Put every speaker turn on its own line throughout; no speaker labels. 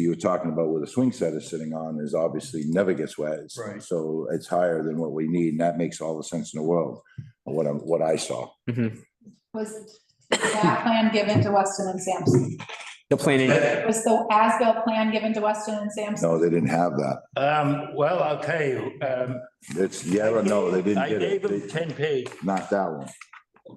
you were talking about where the swing set is sitting on is obviously never gets wet. It's-
Right.
So it's higher than what we need, and that makes all the sense in the world, what I, what I saw.
Was that plan given to Weston and Sampson?
The planning,
Was the as-built plan given to Weston and Sampson?
No, they didn't have that.
Um, well, I'll tell you, um.
It's, yeah, or no, they didn't
I
get
gave
it.
them
They-
ten page,
Not that one.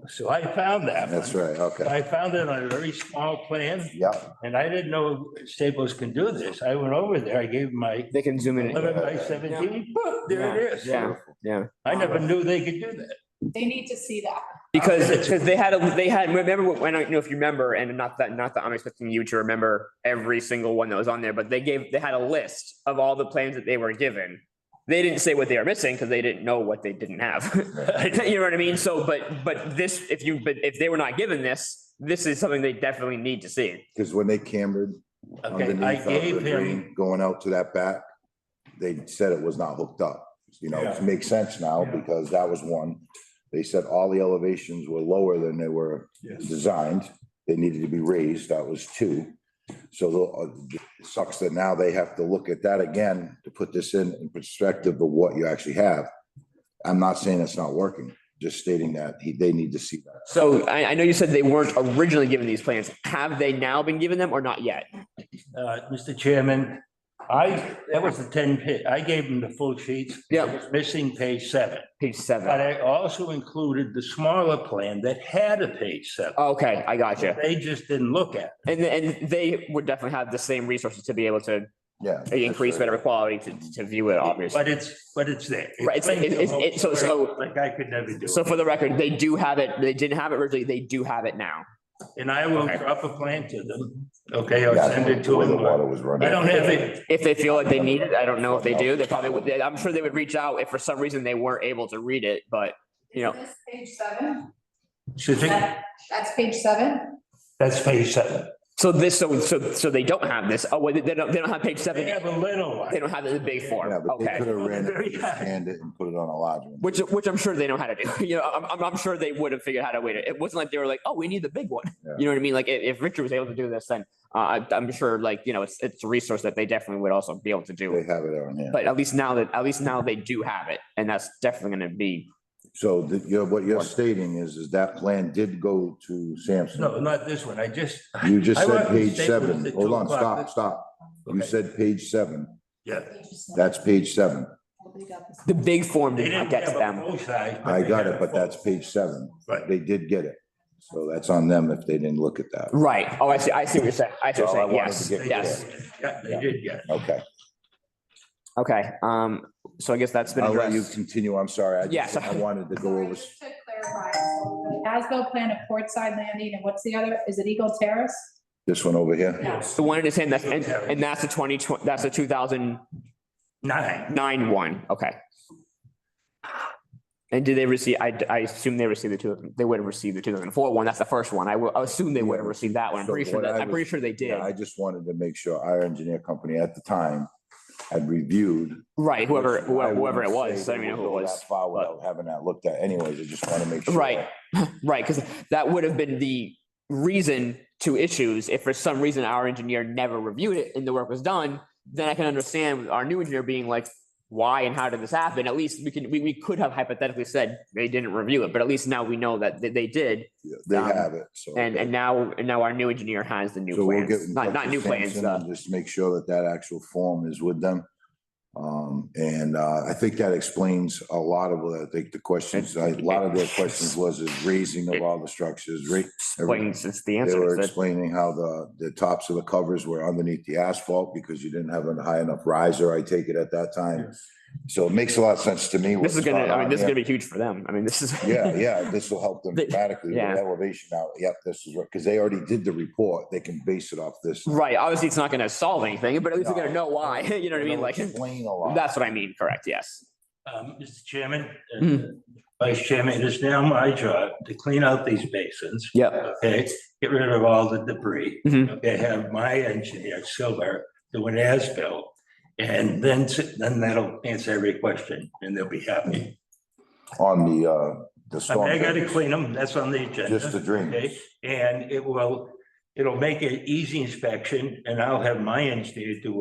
so I found that.
That's
one.
right, okay.
I found it on a very small plan,
Yeah,
and I didn't know Staples can do this. I went over there, I gave 'em my
they can zoom in.
eleven by seventeen, boom, there it is.
Yeah, yeah.
I never knew they could do that.
They need to see that.
Because, because they had, a they had, remember, what- I don't know if you remember, and not that, not that I'm expecting you to remember every single one that was on there, but they gave, they had a list of all the plans that they were given. They didn't say what they were missing because they didn't know what they didn't have. You know what I mean? So, but, but this, if you, but if they were not given this, this is something they definitely need to see.
because when they cambered
Okay, I
underneath of the
gave him,
green, going out to that back, they said it was not hooked up. You know, it
Yeah.
makes sense now
Yeah.
because that was one. They said all the elevations were lower than they were
Yes.
designed. They needed to be raised. That was two. So the, uh, it sucks that now they have to look at that again to put this in, in perspective of what you actually have. I'm not saying it's not working, just stating that he, they need to see that.
So I, I know you said they weren't originally given these plans. Have they now been given them or not yet?
uh, Mr. Chairman, I, that was the ten page, I gave him the full sheets.
Yeah.
It was Missing page seven,
Page
but
seven.
I also included the smaller plan that had a page seven.
Okay, I got you.
They just didn't look at.
And, and they would definitely have the same resources to be able to
Yeah.
They increase
that's right.
whatever quality to, to view it,
it.
obviously.
But it's, but it's there.
Right, it's- it's- it's- it's- so- so-
Like I could never do
So
it.
for the record, they do have it, they didn't have it originally, they do have it now.
And I will
Okay.
drop a plan to them, okay, I'll
Yeah,
send it
the
to
way The
them.
water was running.
I don't have it,
If they feel like they need it, I don't know if they do, they probably would, they- I'm sure they would reach out if for some reason they weren't able to read it, but, you know,
This page seven,
so think-
that- that's page seven.
that's page seven.
so this, so, so, so they don't have this, oh, wait, they don't, they don't have page
They
seven,
have a little
they
one.
don't have the big form,
Yeah, but they
okay?
could have ran
Very
it,
high.
scanned it and put it on a large one.
Which, which I'm sure they know how to do, you know, I'm, I'm, I'm sure they would have figured out how to wait it, it wasn't like they were like, oh, we need the big one.
Yeah.
You know what I mean, like, if, if Richard was able to do this, then, uh, I- I'm sure, like, you know, it's, it's a resource that they definitely would also be able to do.
They have it on hand.
But at least now that, at least now they do have it, and that's definitely gonna be,
So that you're, what you're stating is, is that plan did go to
No,
Sampson.
not this one, I just,
You just
I
said
want
page
Staples
seven.
at
Hold
two
on,
o'clock.
stop, stop. You
Okay.
said page seven.
yeah.
That's page seven.
They got this.
the big form
They
did
didn't
not get to
have a
them.
full size. but
I
they
got
had
it,
a
but
full-
that's page seven.
Right.
They did get it. So that's on them if they didn't look at that.
Right, oh, I see, I see what you're saying, I see what
Well, I
you're saying,
wanted
yes,
to get
They did.
yes,
Yeah, they did, yeah.
Okay.
okay, um, so I guess that's been
I'll let you
addressed.
continue. I'm sorry. I
Yes.
just, I wanted to go
Sorry,
over.
just to clarify, so the As-built plan of Portside Landing, and what's the other? Is it Eagle Terrace?
This one over here?
No.
The one in his hand, that's, and, and that's a twenty, that's a two thousand
Nine,
nine one, okay. And did they receive, I, I assume they received the two, they would have received the two thousand four one, that's the first one, I will, I assume they would have received that one, I'm
So
pretty sure
what
that,
I
I'm pretty
was-
sure they did.
Yeah, I just wanted to make sure our engineer company at the time had reviewed
Right, whoever,
Which I
whoever whoever it
wouldn't say
was,
they
I mean,
would
who it
go
was.
that Far without having that looked at anyways, I just want to make sure.
Right. Right, because that would have been the reason to issues. If for some reason our engineer never reviewed it and the work was done, then I can understand our new engineer being like, why and how did this happen? At least we can, we, we could have hypothetically said they didn't review it, but at least now we know that they, they did.
They
Um,
have it, so.
And, and now, and now our new engineer has the new
So we'll get.
plans,
in
not,
touch
not
with
new plans,
Sampson
uh,
and Just make sure that that actual form is with them. Um, and, uh, I think that explains a lot of, what I think the questions, a lot of their questions was is raising of all the structures, right?
explains it's the
They
answer.
were
It's that-
explaining how the, the tops of the covers were underneath the asphalt because you didn't have a high enough riser, I take it at that time. So it makes a lot of sense to me.
This is
what's
gonna,
going
I mean,
on
this is
here.
gonna be huge for them. I mean, this is.
Yeah, yeah, this will help them
They-
dramatically with
yeah.
elevation out. Yep, this is right, because they already did the report. They can base it off this.
Right, obviously it's not gonna solve anything, but at least they're gonna
No.
know why, you know what I mean,
They'll
like,
Explain a lot.
that's what I mean, correct, yes.
um, Mr. Chairman, uh,
Mhm.
Vice Chairman, it is now my job to clean out these basins.
Yep.
Okay, get rid of all the debris.
Mhm.
Okay, have my engineer, Silver, do an as-built. And then, s- then that'll answer every question and they'll be happy.
On the, uh, the
I mean,
storm.
I gotta
drains,
clean them, that's on the agenda.
Just the drain.
Okay, and it will, It'll make an easy inspection and I'll have my engineer do